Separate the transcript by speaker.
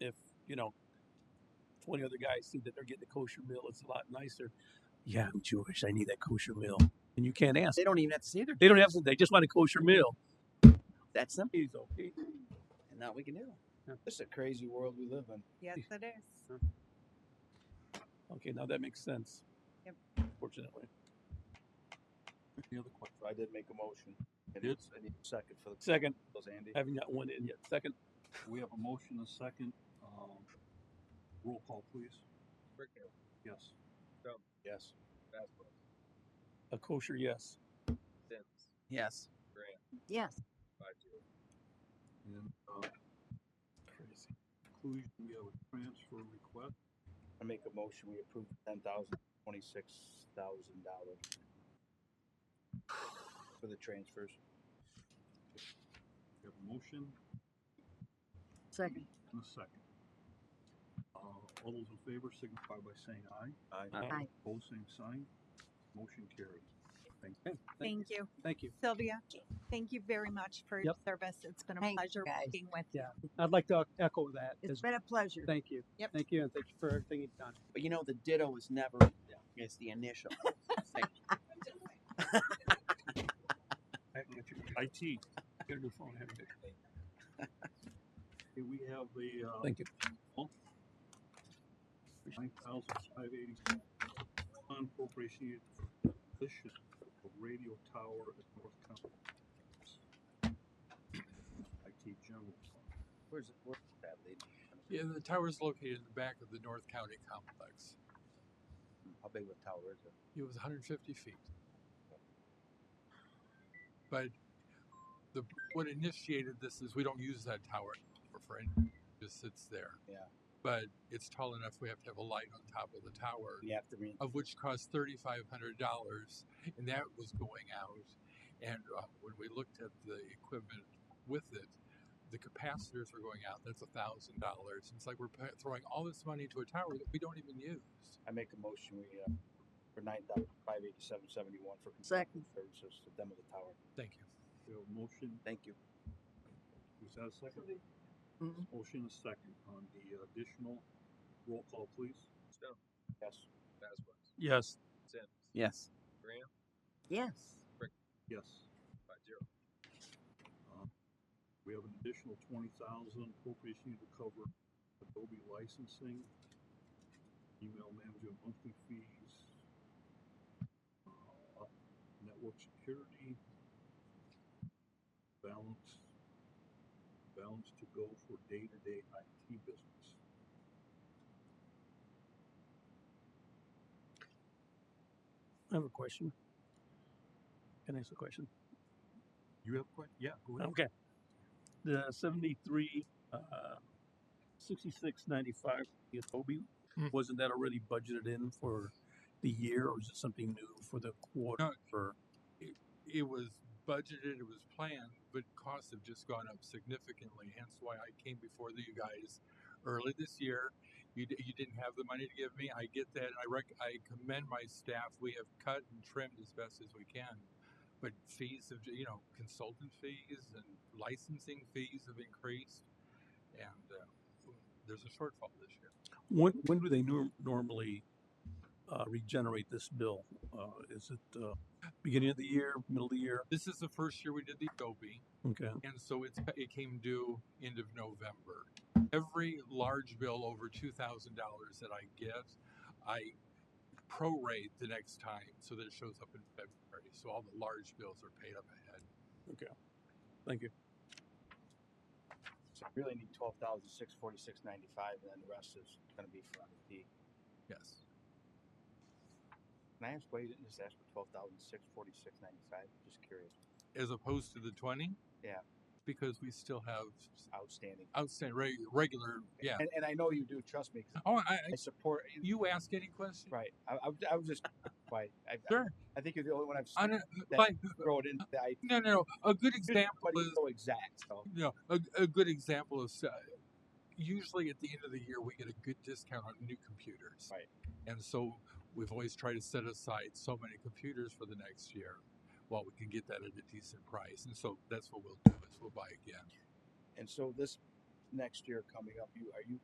Speaker 1: if you know twenty other guys see that they're getting a kosher meal, it's a lot nicer. Yeah, I'm Jewish. I need that kosher meal, and you can't ask.
Speaker 2: They don't even have to say they're
Speaker 1: They don't have to. They just want a kosher meal.
Speaker 2: that simple,
Speaker 1: He's okay.
Speaker 2: and now we can do it.
Speaker 1: Yeah.
Speaker 2: This is a crazy world we live in.
Speaker 3: Yes, it is.
Speaker 1: Okay, now that makes sense.
Speaker 3: Yep.
Speaker 1: Fortunately. Any other questions?
Speaker 4: So I did make a motion. And
Speaker 1: Did?
Speaker 4: it's, I need a second for the,
Speaker 1: Second,
Speaker 4: those Andy.
Speaker 1: haven't got one in yet. Second,
Speaker 5: We have a motion, a second. Um, roll call, please. Yes.
Speaker 4: Yes.
Speaker 1: a kosher yes.
Speaker 2: Yes.
Speaker 3: Yes.
Speaker 5: And, uh,
Speaker 1: Crazy.
Speaker 5: conclusion, we have a transfer request.
Speaker 4: I make a motion, we approve ten thousand, twenty-six thousand dollars for the transfers.
Speaker 5: We have a motion
Speaker 3: Second.
Speaker 5: and a second. Uh, all those in favor signify by saying aye.
Speaker 1: Aye.
Speaker 3: Aye.
Speaker 5: Both same sign. Motion carries. Thank you.
Speaker 3: Thank you.
Speaker 1: Thank you.
Speaker 3: Sylvia, thank you very much for your
Speaker 6: Yep.
Speaker 3: service. It's been a
Speaker 7: Thank you,
Speaker 3: pleasure
Speaker 7: guys.
Speaker 3: working with you.
Speaker 6: Yeah. I'd like to e-, echo that.
Speaker 7: It's
Speaker 6: as-
Speaker 7: been a pleasure.
Speaker 6: Thank you.
Speaker 3: Yep.
Speaker 6: Thank you, and thank you for everything you've done.
Speaker 2: But you know, the ditto is never, it's the initial. It's like,
Speaker 5: IT,
Speaker 1: Get a new phone, have you?
Speaker 5: Okay, we have the, uh,
Speaker 1: Thank you.
Speaker 5: nine thousand five eighty. On appropriation needed for position of radio tower at North County. IT general. fund.
Speaker 2: Where's, where's that lady?
Speaker 8: Yeah, the tower's located in the back of the North County complex.
Speaker 4: How big of a tower is it?
Speaker 8: It was 150 feet. But the, what initiated this is we don't use that tower anymore for any, it just sits there.
Speaker 4: Yeah.
Speaker 8: But it's tall enough we have to have a light on top of the tower,
Speaker 4: You have to read.
Speaker 8: of which cost $3,500. And that was going out. And uh, when we looked at the equipment with it, the capacitors were going out. That's $1,000. It's like we're pa- throwing all this money to a tower that we don't even use.
Speaker 4: I make a motion, we, uh, for nine thousand, five eighty-seven, seventy-one for.
Speaker 7: Second.
Speaker 4: Services to demo the tower.
Speaker 8: Thank you.
Speaker 5: We have a motion,
Speaker 2: Thank you.
Speaker 5: is that a second?
Speaker 7: Mhm.
Speaker 5: Motion is second on the additional roll call, please.
Speaker 4: Yes.
Speaker 1: Yes.
Speaker 2: Yes.
Speaker 7: Yes.
Speaker 5: Yes. Uh, We have an additional twenty thousand appropriation to cover Adobe licensing, email management monthly fees, uh, network security, balance, balance to go for day-to-day IT business.
Speaker 1: I have a question. Can I ask a question?
Speaker 5: You have que- yeah, go ahead.
Speaker 1: Okay. The seventy-three, uh, sixty-six ninety-five, the Adobe,
Speaker 8: Hmm.
Speaker 1: wasn't that already budgeted in for the year or is it something new for the quarter? Or-
Speaker 8: it was budgeted, it was planned, but costs have just gone up significantly. Hence why I came before the- you guys early this year. You, di- you didn't have the money to give me. I get that. I rec- I commend my staff. We have cut and trimmed as best as we can. But fees have, ju- you know, consultant fees and licensing fees have increased. And uh, there's a shortfall this year.
Speaker 1: When, when do they nor- normally, uh, regenerate this bill? Uh, is it, uh, beginning of the year, middle of the year?
Speaker 8: This is the first year we did the Adobe.
Speaker 1: Okay.
Speaker 8: and so it's, it came due end of November. Every large bill over two thousand dollars that I get, I prorate the next time so that it shows up in February. So all the large bills are paid up ahead.
Speaker 1: Thank you.
Speaker 4: So I really need twelve thousand, six forty-six, ninety-five, and then the rest is gonna be for IT.
Speaker 8: Yes.
Speaker 4: Can I ask why you didn't just ask for twelve thousand, six forty-six, ninety-five? Just curious.
Speaker 8: As opposed to the twenty?
Speaker 4: Yeah.
Speaker 8: Because we still have
Speaker 4: Outstanding.
Speaker 8: outstanding reg- regular, yeah.
Speaker 4: And, and I know you do, trust me, 'cause
Speaker 8: Oh, I, I,
Speaker 4: I support,
Speaker 8: you ask any question?
Speaker 4: right, I, I, was- I was just, why, I, I,
Speaker 8: Sure.
Speaker 4: I think you're the only one I've
Speaker 8: I
Speaker 4: seen
Speaker 8: don't, by,
Speaker 4: throw it into the IT.
Speaker 8: no, no, no. a good example
Speaker 4: But
Speaker 8: is
Speaker 4: it's so exact, so.
Speaker 8: you know, a, a good example is uh, usually at the end of the year we get a good discount on new computers.
Speaker 4: Right.
Speaker 8: And so we've always tried to set aside so many computers for the next year while we can get that at a decent price. And so that's what we'll do is we'll buy again.
Speaker 4: And so this next year coming up, you, are you